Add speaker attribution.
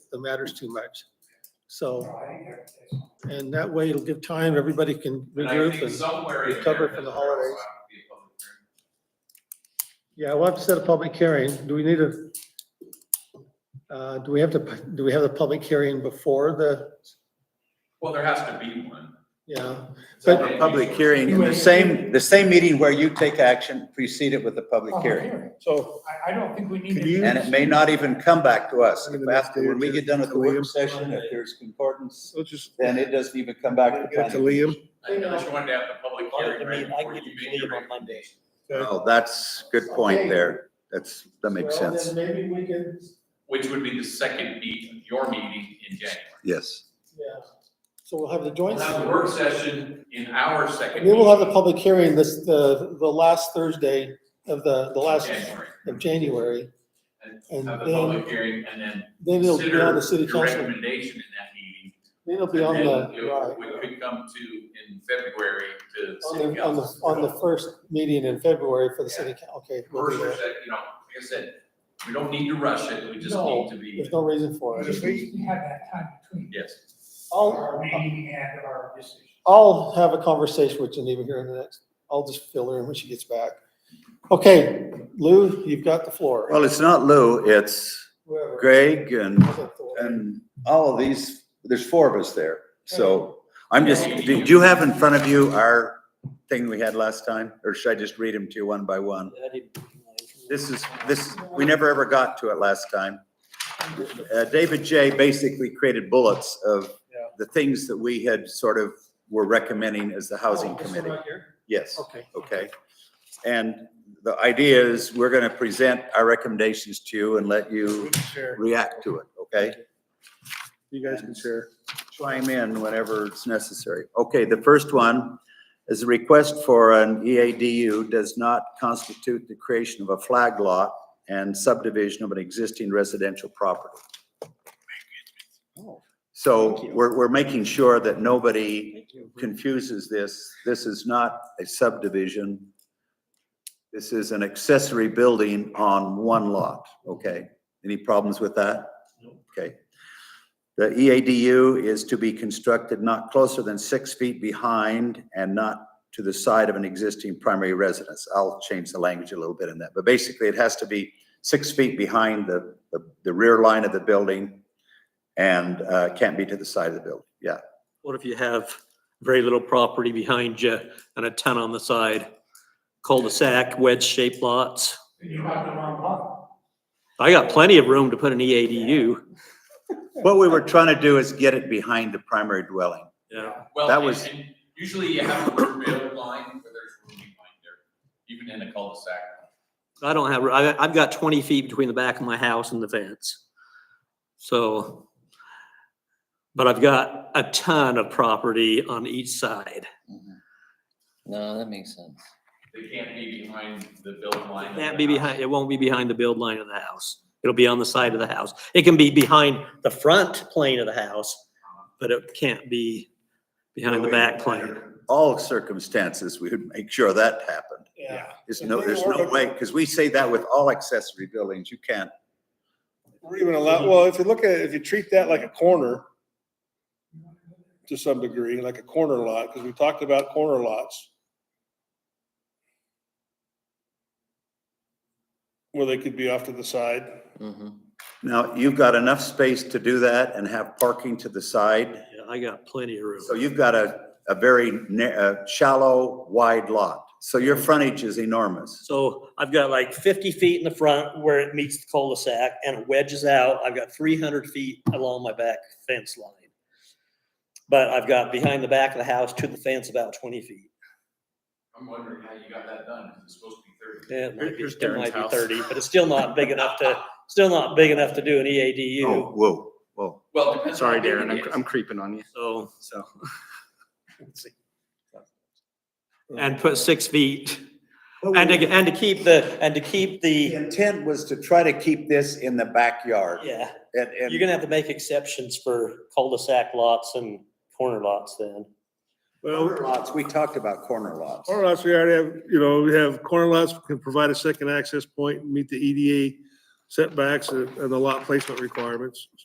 Speaker 1: the matter's too much. So, and that way it'll give time, everybody can
Speaker 2: And I
Speaker 1: regroup
Speaker 2: think
Speaker 1: and,
Speaker 2: somewhere in
Speaker 1: recover
Speaker 2: there
Speaker 1: from the
Speaker 2: that there will
Speaker 1: holidays.
Speaker 2: have to be
Speaker 1: yeah,
Speaker 2: a public hearing.
Speaker 1: we'll have to set a public hearing. Do we need a, uh, do we have to, do we have the public hearing before the,
Speaker 2: Well, there has to be one.
Speaker 1: yeah?
Speaker 2: So
Speaker 1: But-
Speaker 2: maybe
Speaker 3: Public
Speaker 2: sort of-
Speaker 3: hearing, in the same, the same meeting where you take action, precede it with a public
Speaker 4: Oh,
Speaker 5: Public
Speaker 3: hearing.
Speaker 5: hearing.
Speaker 4: So
Speaker 5: Oh, I, I don't think we need
Speaker 4: Could
Speaker 5: to.
Speaker 4: you-
Speaker 3: And it may not even come back to us.
Speaker 4: Maybe
Speaker 3: If
Speaker 4: the next
Speaker 3: after,
Speaker 4: day or
Speaker 3: when we
Speaker 4: two,
Speaker 3: get done with the
Speaker 4: Liam.
Speaker 3: work session, if there's concordance,
Speaker 4: let's just
Speaker 3: then it doesn't even come back to the
Speaker 4: get to
Speaker 3: planning.
Speaker 4: Liam.
Speaker 2: I know you wanted to have the public hearing
Speaker 6: Wanted to
Speaker 2: right
Speaker 6: meet, I
Speaker 2: before
Speaker 6: can
Speaker 2: you
Speaker 6: get
Speaker 2: made
Speaker 6: it
Speaker 2: your
Speaker 6: on Monday.
Speaker 4: uh,
Speaker 3: Oh, that's good point there. That's, that makes
Speaker 1: Well, then
Speaker 3: sense.
Speaker 1: Maybe we can,
Speaker 2: which would be the second meet of your meeting in January.
Speaker 3: Yes.
Speaker 1: yeah, so we'll have the
Speaker 2: We'll
Speaker 1: joint.
Speaker 2: have the work session in our second.
Speaker 1: We will have the
Speaker 2: meeting
Speaker 1: public hearing this, the, the last Thursday of the, the
Speaker 2: in
Speaker 1: last
Speaker 2: January.
Speaker 1: of January.
Speaker 2: And
Speaker 1: And
Speaker 2: have the
Speaker 1: then-
Speaker 2: public hearing and then
Speaker 1: Then it'll be on
Speaker 2: consider
Speaker 1: the city
Speaker 2: your
Speaker 1: council. Then
Speaker 2: recommendation in that meeting.
Speaker 1: it'll be on
Speaker 2: And then
Speaker 1: the,
Speaker 2: you- We
Speaker 1: right,
Speaker 2: could come to in February to
Speaker 1: on
Speaker 2: city
Speaker 1: the, on the,
Speaker 2: council.
Speaker 1: on the first meeting in February for the city, coun- okay. we'll do
Speaker 2: First or
Speaker 1: that.
Speaker 2: second, you know, like I said, we don't need to rush it, we just
Speaker 1: No,
Speaker 2: need to be,
Speaker 1: There's no reason for
Speaker 5: At
Speaker 1: it.
Speaker 5: least we have that time between
Speaker 2: yes.
Speaker 1: I'll,
Speaker 5: our meeting and our decision.
Speaker 1: I'll have a conversation with Geneva here in the next, I'll just fill her in when she gets back. Okay, Lou, you've got the floor.
Speaker 3: Well, it's not Lou, it's
Speaker 1: Whoever.
Speaker 3: Greg and,
Speaker 1: Is it the-
Speaker 3: and all of these, there's four of us there. So I'm just, did you have in front of you our thing we had last time? Or should I just read them to you one by one?
Speaker 6: I didn't-
Speaker 3: This is, this, we never ever got to it last time. Uh, David J. basically created bullets of
Speaker 4: Yeah.
Speaker 3: the things that we had sort of were recommending as the housing
Speaker 1: Oh, this one
Speaker 3: committee.
Speaker 1: right here?
Speaker 3: Yes,
Speaker 1: Okay.
Speaker 3: okay. And the idea is we're gonna present our recommendations to you and let
Speaker 4: We
Speaker 3: you
Speaker 4: can share.
Speaker 3: react to it, okay?
Speaker 4: You guys can share.
Speaker 3: Chime in whenever it's necessary. Okay, the first one is a request for an E EADU does not constitute the creation of a flag lot and subdivision of an existing residential property. So we're, we're making sure that nobody confuses this. This is not a subdivision. This is an accessory building on one lot, okay? Any problems with that? Okay. The E EADU is to be constructed not closer than six feet behind and not to the side of an existing primary residence. I'll change the language a little bit in that, but basically it has to be six feet behind the, the- the rear line of the building and uh, can't be to the side of the building, yeah.
Speaker 7: What if you have very little property behind you and a ton on the side? Cul-de-sac, wedge-shaped lots.
Speaker 5: You have the wrong one.
Speaker 7: I got plenty of room to put an E EADU.
Speaker 3: What we were trying to do is get it behind the primary dwelling.
Speaker 7: Yeah,
Speaker 2: Well,
Speaker 3: That
Speaker 2: and-
Speaker 3: was-
Speaker 2: and Usually you have a real line where there's room behind there, even in a cul-de-sac.
Speaker 7: I don't have, I, I've got twenty feet between the back of my house and the fence. So, but I've got a ton of property on each side.
Speaker 6: No, that makes sense.
Speaker 2: They can't be behind the build line. of
Speaker 7: Can't
Speaker 2: the
Speaker 7: be
Speaker 2: house.
Speaker 7: behind, it won't be behind the build line of the house. It'll be on the side of the house. It can be behind the front plane of the house, but it can't be behind the back plane.
Speaker 3: All circumstances, we would make sure that happened.
Speaker 4: Yeah.
Speaker 3: There's no, there's no way, because we say that with all accessory buildings, you can't
Speaker 4: We're even allowed, well, if you look at, it, if you treat that like a corner to some degree, like a corner lot, because we talked about corner lots. Where they could be off to the side.
Speaker 6: Mm-hmm.
Speaker 3: Now, you've got enough space to do that and have parking to the side,
Speaker 7: Yeah, I got plenty of room.
Speaker 3: so you've got a, a very na- a shallow, wide lot. So your frontage is enormous.
Speaker 7: So I've got like fifty feet in the front where it meets the cul-de-sac and it wedges out. I've got three hundred feet along my back fence line. But I've got behind the back of the house to the fence about twenty feet.
Speaker 2: I'm wondering how you got that done, 'cause it's supposed to be thirty.
Speaker 7: Yeah, It might be,
Speaker 2: Here's
Speaker 7: it
Speaker 2: Darren's
Speaker 7: might be
Speaker 2: house.
Speaker 7: thirty, but it's still not big enough to, still not big enough to do an E
Speaker 3: Oh,
Speaker 7: EADU.
Speaker 3: whoa, whoa.
Speaker 2: Well, it depends.
Speaker 8: Sorry,
Speaker 2: on how big
Speaker 8: Darren,
Speaker 2: it
Speaker 8: I'm,
Speaker 2: is.
Speaker 8: I'm creeping on you.
Speaker 7: So,
Speaker 8: So
Speaker 7: and put six feet. And to, and to keep the, and to keep
Speaker 3: The
Speaker 7: the,
Speaker 3: intent was to try to keep this in the backyard
Speaker 7: yeah.
Speaker 3: and,
Speaker 7: You're
Speaker 3: and
Speaker 7: gonna have to make exceptions for cul-de-sac lots and corner lots then.
Speaker 4: Well,
Speaker 3: corner lots, we talked about corner lots.
Speaker 4: corner lots, we already have, you know, we have corner lots can provide E a second access point, meet the EDA setbacks and and the lot placement requirements.